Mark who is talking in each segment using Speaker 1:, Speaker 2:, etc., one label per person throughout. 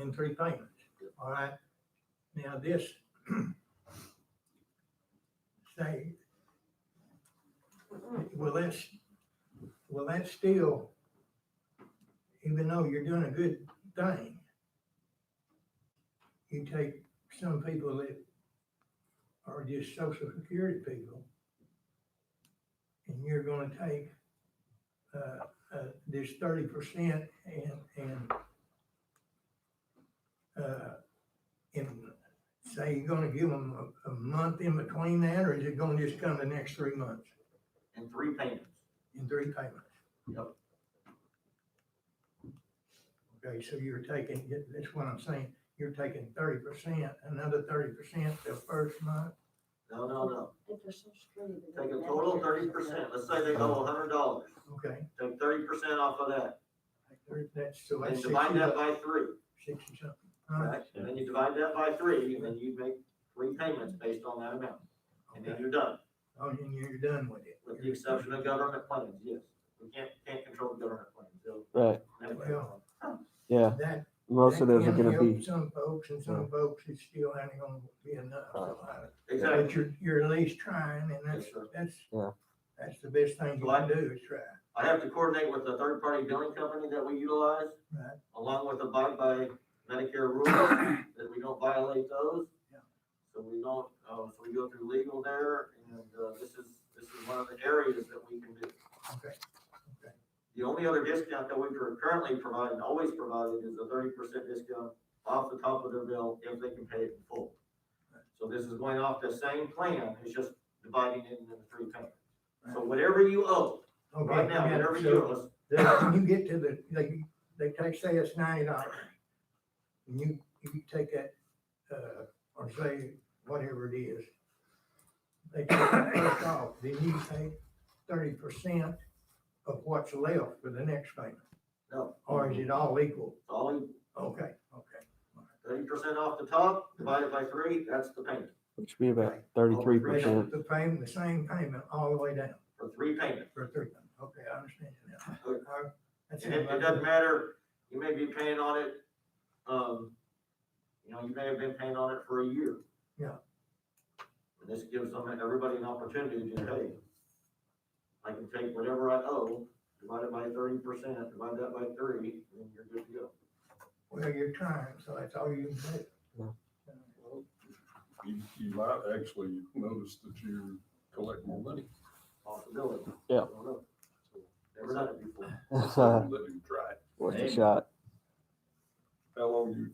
Speaker 1: in three payments, all right? Now this, say, well, that's, well, that's still, even though you're doing a good thing, you take some people that are just social security people, and you're gonna take, uh, uh, this thirty percent and, and uh, and say you're gonna give them a, a month in between that, or is it gonna just come the next three months
Speaker 2: and three payments.
Speaker 1: in three payments?
Speaker 2: Yep.
Speaker 1: Okay, so you're taking, that's what I'm saying, you're taking thirty percent, another thirty percent the first month,
Speaker 2: No, no, no.
Speaker 3: If they're social security. they
Speaker 2: Take a
Speaker 3: don't
Speaker 2: total
Speaker 3: have
Speaker 2: thirty
Speaker 3: to.
Speaker 2: percent. Let's say they owe a hundred dollars.
Speaker 1: okay?
Speaker 2: Take thirty percent off of that
Speaker 1: That's, so that's
Speaker 2: and
Speaker 1: sixty,
Speaker 2: divide that
Speaker 1: bucks,
Speaker 2: by three,
Speaker 1: sixty something. All right,
Speaker 2: right? And then you divide that by three and then you make three payments based on that amount. And then
Speaker 1: okay.
Speaker 2: you're done,
Speaker 1: Oh, and you're done with it.
Speaker 2: with the exception of government plans, yes. We can't, can't control the government plans. They'll-
Speaker 4: Right.
Speaker 2: Anyway.
Speaker 4: Yeah,
Speaker 1: That.
Speaker 4: most of those are
Speaker 1: that can
Speaker 4: gonna
Speaker 1: help
Speaker 4: be,
Speaker 1: Some folks and some folks, it's still ain't gonna be enough. So I- But
Speaker 2: Exactly.
Speaker 1: you're, you're at least trying, and that's,
Speaker 2: Yes, sir.
Speaker 1: that's,
Speaker 4: Yeah.
Speaker 1: that's the best thing you can do, is try.
Speaker 2: I have to coordinate with the third-party billing company that we utilize,
Speaker 1: Right.
Speaker 2: along with abide by Medicare rules, that we don't violate those.
Speaker 1: Yeah.
Speaker 2: So we don't, uh, so we go through legal there, and, uh, this is, this is one of the areas that we can do.
Speaker 1: Okay, okay.
Speaker 2: The only other discount that we are currently providing, always providing, is a thirty percent discount off the top of their bill if they can pay it in full. So this is going off the same plan, it's just dividing it into three payments. So whatever you owe,
Speaker 1: Okay,
Speaker 2: Right now,
Speaker 1: yeah,
Speaker 2: whatever
Speaker 1: so
Speaker 2: you owe us,
Speaker 1: then When you get to the, they, they take, say it's ninety dollars, and you, you take that, uh, or say whatever it is, they take that first off, then you pay thirty percent of what's left for the next payment,
Speaker 2: no,
Speaker 1: or is it all equal?
Speaker 2: it's only
Speaker 1: Okay, okay.
Speaker 2: thirty percent off the top, divided by three, that's the payment,
Speaker 4: which would be about thirty-three percent.
Speaker 1: The payment, the same payment all the way down.
Speaker 2: for three payments.
Speaker 1: For three, months. okay, I understand now.
Speaker 2: Okay.
Speaker 1: Uh, that's
Speaker 2: And it, it doesn't matter, you may be paying on it, um, you know, you may have been paying on it for a year.
Speaker 1: Yeah.
Speaker 2: And this gives them, everybody an opportunity to pay. I can take whatever I owe, divide it by thirty percent, divide that by three, and then you're good to go.
Speaker 1: Well, you're trying, so that's all you can
Speaker 4: Yeah.
Speaker 1: do.
Speaker 5: Well, You, you might actually notice that you collect more money.
Speaker 2: Possibility.
Speaker 4: Yeah.
Speaker 2: I don't know. Never done it before.
Speaker 4: uh, Worth
Speaker 5: Let him try it.
Speaker 4: a shot.
Speaker 5: How long you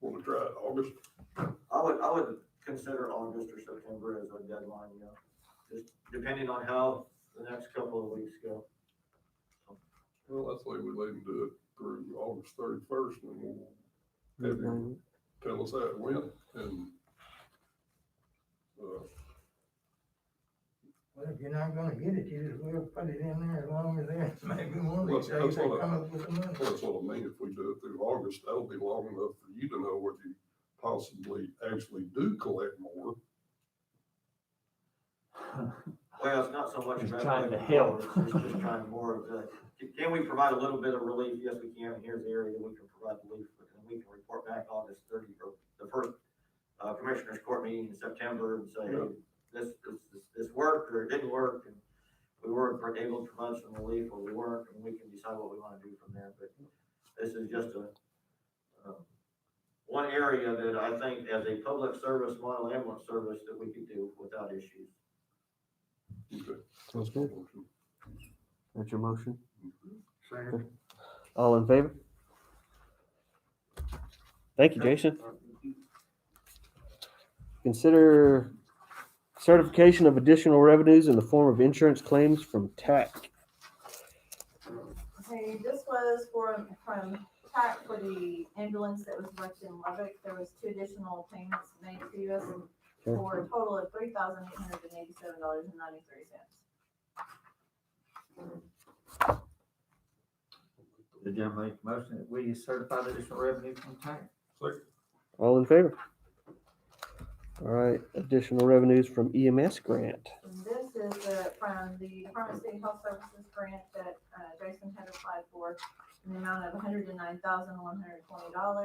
Speaker 5: wanna try it? August?
Speaker 2: I would, I would consider August or September as a deadline, you know, just depending on how the next couple of weeks go.
Speaker 5: Well, I say we let him do it through August thirty-first and then we'll have him
Speaker 4: Mhm.
Speaker 5: tell us how it went and, uh,
Speaker 1: Well, if you're not gonna get it, you just will put it in there as long as they, maybe one of these
Speaker 5: Well,
Speaker 1: days
Speaker 5: that's
Speaker 1: they
Speaker 5: what I-
Speaker 1: come up with the money.
Speaker 5: that's what I mean. If we do it through August, that'll be long enough for you to know what you possibly actually do collect more.
Speaker 2: Well, it's not so much.
Speaker 6: Just
Speaker 2: about
Speaker 6: trying to
Speaker 2: that,
Speaker 6: help.
Speaker 2: It's just trying more of the, can- can we provide a little bit of relief? Yes, we can. And Here's the area that we can provide relief. And we can report back August thirty, or the first uh, commissioners court meeting in September and say,
Speaker 5: Yeah.
Speaker 2: this, this- this, this worked or it didn't work. And we were able to provide some relief or we weren't, and we can decide what we want to do from there. But this is just a, um, one area that I think as a public service model ambulance service that we could do without issues.
Speaker 5: Okay.
Speaker 4: Sounds good. That's your motion.
Speaker 2: Second.
Speaker 4: All in favor? Thank you, Jason. Consider certification of additional revenues in the form of insurance claims from TAC.
Speaker 3: Okay, this was for, from TAC for the ambulance that was wrecked in Lubbock. There was two additional payments made to us for a total of three thousand eight hundred and eighty-seven dollars and ninety-three cents.
Speaker 7: The gentleman make the motion that we certify the additional revenue from tax.
Speaker 4: All in favor? All right, additional revenues from EMS grant.
Speaker 3: And this is the, from the Department of State Health Services grant that uh, Jason had applied for in the amount of one hundred and nine thousand, one hundred and twenty dollars.